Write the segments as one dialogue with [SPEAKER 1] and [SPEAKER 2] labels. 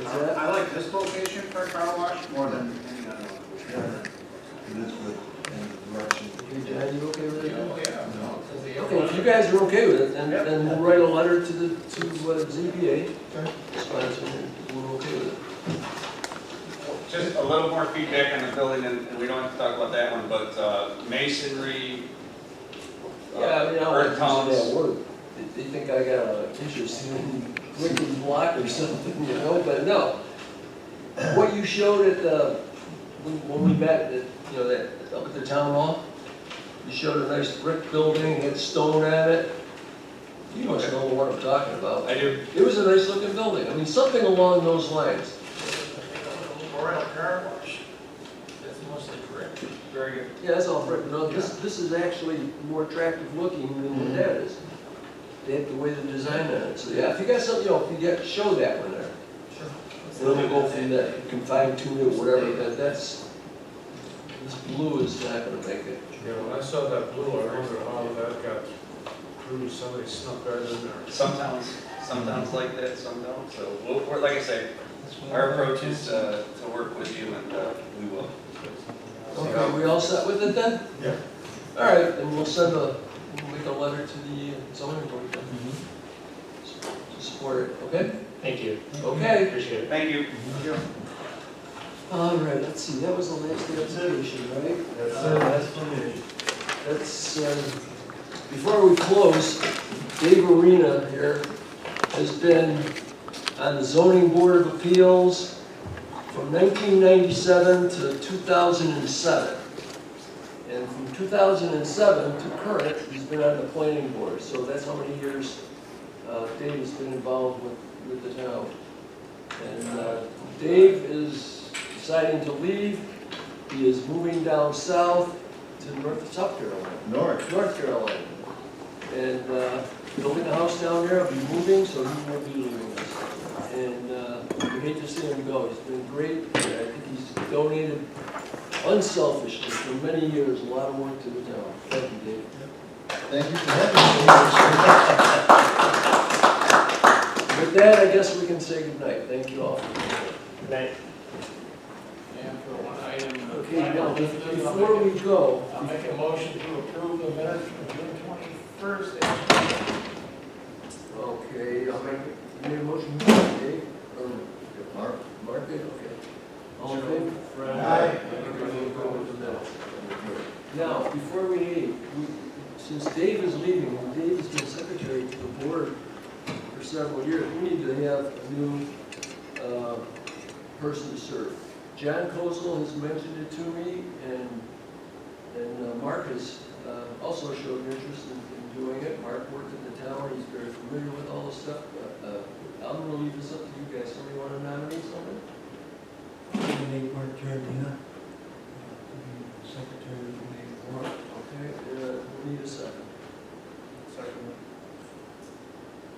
[SPEAKER 1] Is
[SPEAKER 2] I
[SPEAKER 1] that,
[SPEAKER 2] I like this location for a car wash more than any other one.
[SPEAKER 3] This with, and the direction.
[SPEAKER 1] hey, John, you okay with that?
[SPEAKER 2] yeah.
[SPEAKER 1] Okay, if you guys are okay with it, then,
[SPEAKER 2] Yep.
[SPEAKER 1] then we'll write a letter to the, to uh, ZBA.
[SPEAKER 3] Okay.
[SPEAKER 1] Sponsor, we're okay with it.
[SPEAKER 4] Just a little more feedback on the building, and and we don't have to talk about that one, but uh, masonry, uh,
[SPEAKER 1] Yeah, I mean, I
[SPEAKER 4] earth
[SPEAKER 1] don't want to use
[SPEAKER 4] tones.
[SPEAKER 1] that word. They- They think I got a interest in wicked block or something, you know, but no. What you showed at the, when when we met, at, you know, that, up at the town hall, you showed a nice brick building, had stone on it. You must know what I'm talking about.
[SPEAKER 4] I do,
[SPEAKER 1] It was a nice looking building, I mean, something along those lines.
[SPEAKER 5] Or a car wash. That's mostly correct.
[SPEAKER 4] very good.
[SPEAKER 1] Yeah, that's all brick, no, this, this is actually more attractive looking than what that is. They have the way they designed it, so yeah, if you got something, you know, if you got, show that one there.
[SPEAKER 5] Sure.
[SPEAKER 1] Then we'll go from there, you can fine tune it, whatever, but that's, this blue is not gonna make it.
[SPEAKER 6] Yeah, when I saw that blue, I wondered how that got through, somebody snuck that in there.
[SPEAKER 4] Some towns, some towns like that, some don't, so, we'll- we're- like I say, our approach is uh, to work with you, and uh, we will.
[SPEAKER 1] Okay, we all set with it then?
[SPEAKER 3] Yeah.
[SPEAKER 1] All right, then we'll send a, we'll make a letter to the zoning board then.
[SPEAKER 3] Mm-hmm.
[SPEAKER 1] To support it, okay?
[SPEAKER 7] Thank you,
[SPEAKER 1] Okay.
[SPEAKER 7] appreciate it.
[SPEAKER 4] Thank you.
[SPEAKER 1] All right, let's see, that was the last application, right? Uh,
[SPEAKER 3] That's it, that's for me.
[SPEAKER 1] That's, uh, before we close, Dave Arena here has been on the zoning board of appeals from 1997 to 2007. And from 2007 to current, he's been on the planning board, so that's how many years uh, Dave has been involved with, with the town. And uh, Dave is deciding to leave, he is moving down south to North, South Carolina.
[SPEAKER 3] North.
[SPEAKER 1] North Carolina. And uh, building a house down there, I'll be moving, so he won't be leaving us. And uh, we hate to see him go, he's been great, and I think he's donated unselfishly for many years, a lot of work to the town. Thank you, Dave.
[SPEAKER 3] Thank you for having me.
[SPEAKER 1] With that, I guess we can say goodnight, thank you all.
[SPEAKER 7] Good night.
[SPEAKER 5] And for one item. uh,
[SPEAKER 1] Okay, now, before we go,
[SPEAKER 5] I'll make a motion to approve the minutes from June twenty-first.
[SPEAKER 1] okay, I'll make, you made a motion, Dave, or
[SPEAKER 3] Mark?
[SPEAKER 1] Mark, okay. All in favor?
[SPEAKER 3] Aye.
[SPEAKER 1] Now, before we leave, we- since Dave is leaving, and Dave has been secretary to the board for several years, we need to have a new uh, person to serve. John Kozel has mentioned it to me, and, and uh, Mark has uh, also showed an interest in- in doing it. Mark worked at the town, he's very familiar with all this stuff. but, uh, I'm gonna leave this up to you guys, somebody want to nominate someone?
[SPEAKER 8] Make Mark Giardina, uh, Secretary of the Board.
[SPEAKER 1] Okay, uh, we need a second. Second.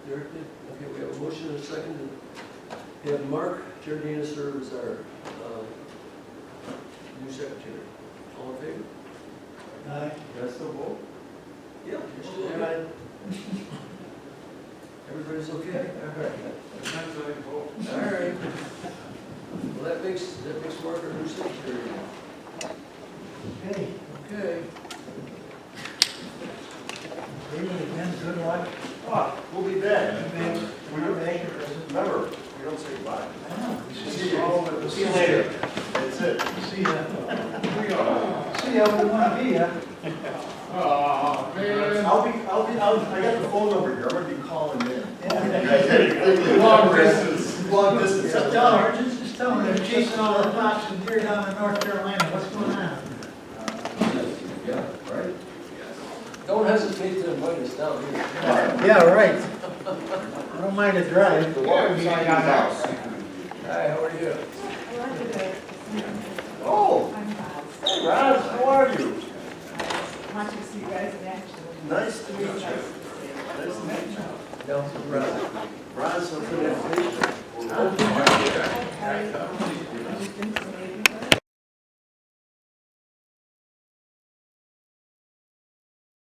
[SPEAKER 1] Derek did, okay, we have a motion and a second. We have Mark Giardina serve as our, uh, new secretary. All in favor?
[SPEAKER 8] Aye.
[SPEAKER 3] That's the vote.
[SPEAKER 1] Yeah. Everybody's okay? All right. Well, that makes, that makes Mark our new secretary now.
[SPEAKER 8] Okay,
[SPEAKER 1] Okay.
[SPEAKER 8] David, again, good luck.
[SPEAKER 2] Ah, we'll be back.
[SPEAKER 8] Man,
[SPEAKER 2] We don't make it, remember, we don't say bye.
[SPEAKER 8] I know.
[SPEAKER 2] See you later. That's it.
[SPEAKER 8] See ya. See ya, we wanna be ya.
[SPEAKER 2] Oh, man.
[SPEAKER 3] I'll be, I'll be, I'll, I got the phone number here, I'm gonna be calling in.
[SPEAKER 2] Long distance.
[SPEAKER 3] Long distance.
[SPEAKER 8] Just tell her, just, just tell her, they're chasing all the fox and deer down in North Carolina, what's going on?
[SPEAKER 3] Yeah, right?
[SPEAKER 1] Don't hesitate to invite us down here.
[SPEAKER 8] Yeah, right. I don't mind a drive.
[SPEAKER 2] The water's on your house.
[SPEAKER 1] Hi, how are you?
[SPEAKER 2] Oh,
[SPEAKER 9] I'm Bob.
[SPEAKER 2] hey, Roz, how are you?
[SPEAKER 9] Want to see you guys in action.
[SPEAKER 2] Nice to meet you. Nice to meet you.
[SPEAKER 1] Down to Roz.
[SPEAKER 2] Roz, I'm good.
[SPEAKER 9] I- I- I just think so.